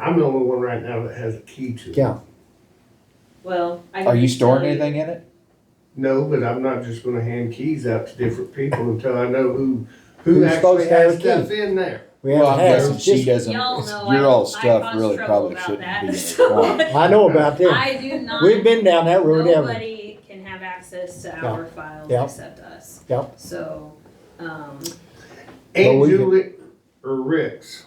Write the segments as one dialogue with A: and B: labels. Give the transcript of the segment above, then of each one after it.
A: I'm the only one right now that has a key to it.
B: Yeah.
C: Well, I.
B: Are you
C: can
B: storing
C: tell you-
B: anything in it?
A: No, but I'm not just gonna hand keys out to different people until I know who, who
B: Who's
A: actually
B: supposed to have
A: has
B: a key?
A: stuff in there.
B: We well, I'm guessing she doesn't.
C: Y'all
B: it's-
C: know I-
B: your old
C: I
B: stuff
C: caused
B: really
C: trouble
B: probably
C: about
B: shouldn't
C: that,
B: be in it.
C: so-
B: Well, I know about this.
C: I do not.
B: We've been down that road, haven't we?
C: Nobody can have access to our files
B: Yeah.
C: except us.
B: Yeah.
C: So, um,
B: Well,
A: And
B: we could-
A: Julie or Rick's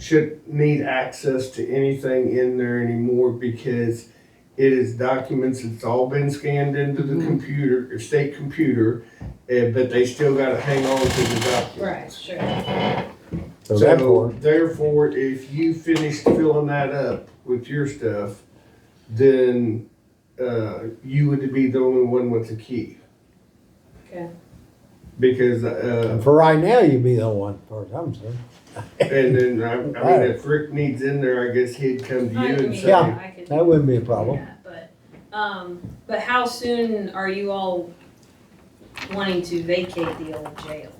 A: should need access to anything in there anymore because it is documents, it's all been scanned into the
B: Mm-hmm.
A: computer, or state computer, eh, but they still gotta hang on to the documents.
C: right, sure.
B: So therefore,
A: So therefore, if you finish filling that up with your stuff, then, uh, you would be the only one with the key.
C: Okay.
A: Because, uh,
B: for right now, you'd be the one, as far as I'm concerned.
A: and then, I, I mean, if Rick needs in there, I guess he'd come to
C: I
A: you and
C: mean,
A: say,
B: Yeah.
C: I could
B: That wouldn't be a
C: do
B: problem.
C: that, But, um, but how soon are you all wanting to vacate the old jail?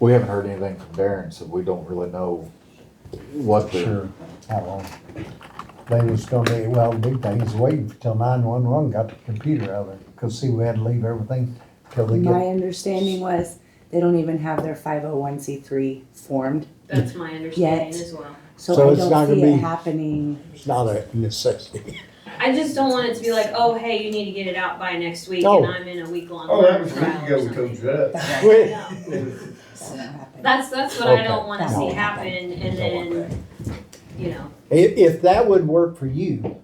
D: We haven't heard anything from Darren, so we don't really know what the,
B: Sure. How long? They was gonna be, well, the big thing is waiting till nine-one-one got the computer out of it, cause see, we had to leave everything till they
E: My understanding was they don't even have their five oh one C three formed,
C: That's my understanding as well.
E: so
B: So
E: I
B: it's not
E: don't
B: gonna
E: see it
B: be-
E: happening.
B: It's not a necessity.
C: I just don't want it to be like, oh, hey, you need to get it out by next week
B: No.
C: and I'm in a week long
A: oh, that was
C: trial
A: good,
C: or
A: you go,
C: something.
A: comes up.
B: We-
C: No.
E: That won't happen.
C: That's, that's what I
B: Okay.
C: don't wanna
E: That
C: see
E: won't happen.
C: happen and
D: Don't want
C: then, you know,
B: If, if that would work for you,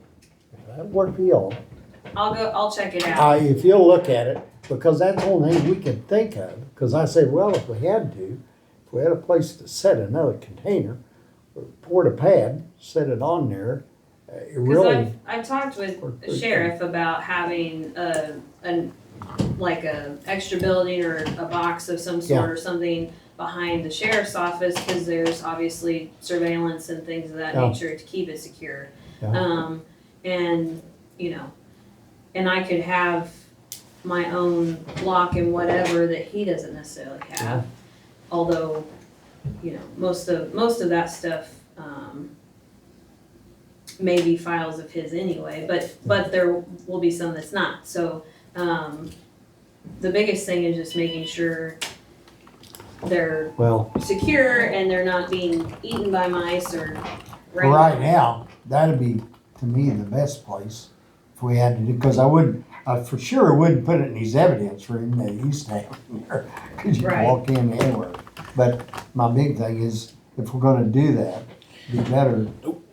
B: if that would work for y'all,
C: I'll go, I'll check it out.
B: uh, if you'll look at it, because that's the only thing we can think of, because I said, well, if we had to, if we had a place to set another container, port a pad, set it on there, uh, it
C: Cause
B: really.
C: I've, I've talked with
B: worked
C: the
B: pretty
C: sheriff about having a, an, like a extra building or a box of some
B: Yeah.
C: sort or something behind the sheriff's office, cause there's obviously surveillance and things of that
B: Yeah.
C: nature to keep it secure.
F: Oh.
B: Yeah.
C: Um, and, you know, and I could have my own lock and whatever that he doesn't necessarily
B: Yeah.
C: have. Although, you know, most of, most of that stuff, um, may be files of his anyway, but, but there will be some that's not, so, um, the biggest thing is just making sure they're
B: Well,
C: secure and they're not being eaten by mice or.
F: Right now, that'd be, to me, the best place if we had to do, because I wouldn't, I for sure wouldn't put it in his evidence room that he stayed in there. Because you can
C: Right.
F: walk in anywhere. But my big thing is, if we're gonna do that, it'd be better,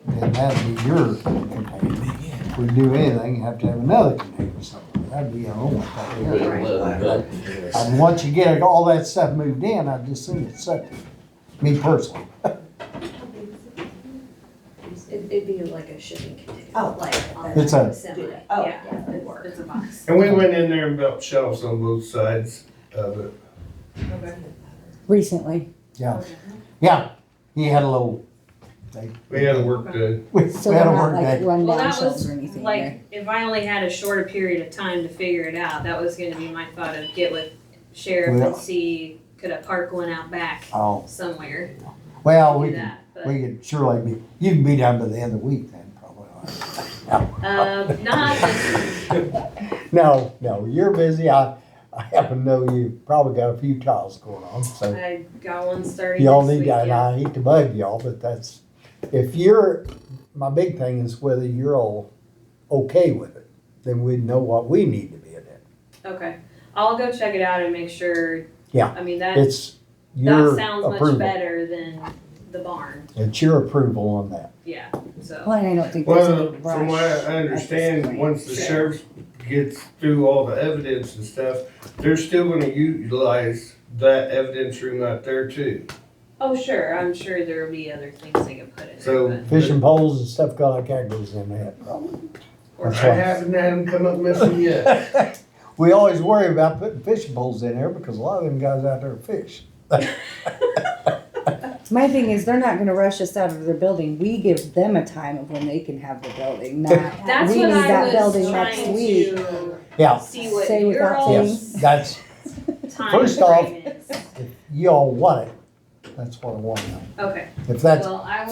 F: then that'd be your container. If we do anything, you have to have another container somewhere. That'd be the only thing.
C: Right.
F: And once you get all that stuff moved in, I just think it's set, me personally.
C: It- It'd be like a shipping container.
G: Oh.
C: Like on
F: It's a-
C: assembly,
G: Oh,
C: yeah,
G: yeah, it would
C: it's,
G: work.
C: it's a box.
A: And we went in there and built shelves on both sides of it.
C: Okay.
E: Recently,
F: Yeah, yeah. He had a little
A: We had to work the,
F: We
E: so
F: had
E: they're
F: a
E: not
F: work
E: like
F: day.
E: run
C: Well,
E: down
C: that
E: shelves
C: was
E: or anything. there.
C: like, if I only had a shorter period of time to figure it out, that was gonna be my thought of get with sheriff
F: Well-
C: and see, could I park one out back
F: Oh,
C: somewhere?
F: well, uh, we
C: Do
F: could,
C: that, but,
F: we could surely be, you can be down by the end of the week then, probably.
C: uh, not this,
F: No, no, you're busy. I, I happen to know you probably got a few trials going on, so
C: I got one starting
F: y'all
C: next
F: need
C: week,
F: to, and
C: yeah.
F: I hate to bug y'all, but that's, if you're, my big thing is whether you're all okay with it, then we know what we need to be in it.
C: Okay, I'll go check it out and make sure.
F: Yeah.
C: I mean, that,
F: It's
C: that
F: your
C: sounds much
F: approval.
C: better than the barn,
F: It's your approval on that.
C: yeah, so.
E: Well, and I don't think there's
A: well,
E: any
A: from what I
E: rush.
A: I understand,
E: point.
A: once the
C: Sure.
A: sheriff gets through all the evidence and stuff, they're still gonna utilize that evidence room out there too.
C: Oh, sure, I'm sure there'll be other things they can put in
A: So-
C: there,
F: Fishing poles and stuff like that goes in that probably.
A: I
F: That's right.
A: haven't had them come up missing yet.
F: We always worry about putting fishing poles in there because a lot of them guys out there fish.
E: My thing is, they're not gonna rush us out of their building. We give them a time of when they can have the building, not
C: but. That's
E: We
C: what
E: need that
C: I was
E: building next
C: trying
E: week.
C: to
F: Yeah,
C: see what
E: Say
C: your
E: without
C: all's
F: that's,
C: time
F: First off-
C: frame is.
F: if y'all want it, that's what I want to know.
C: Okay,
F: If that's
C: well, I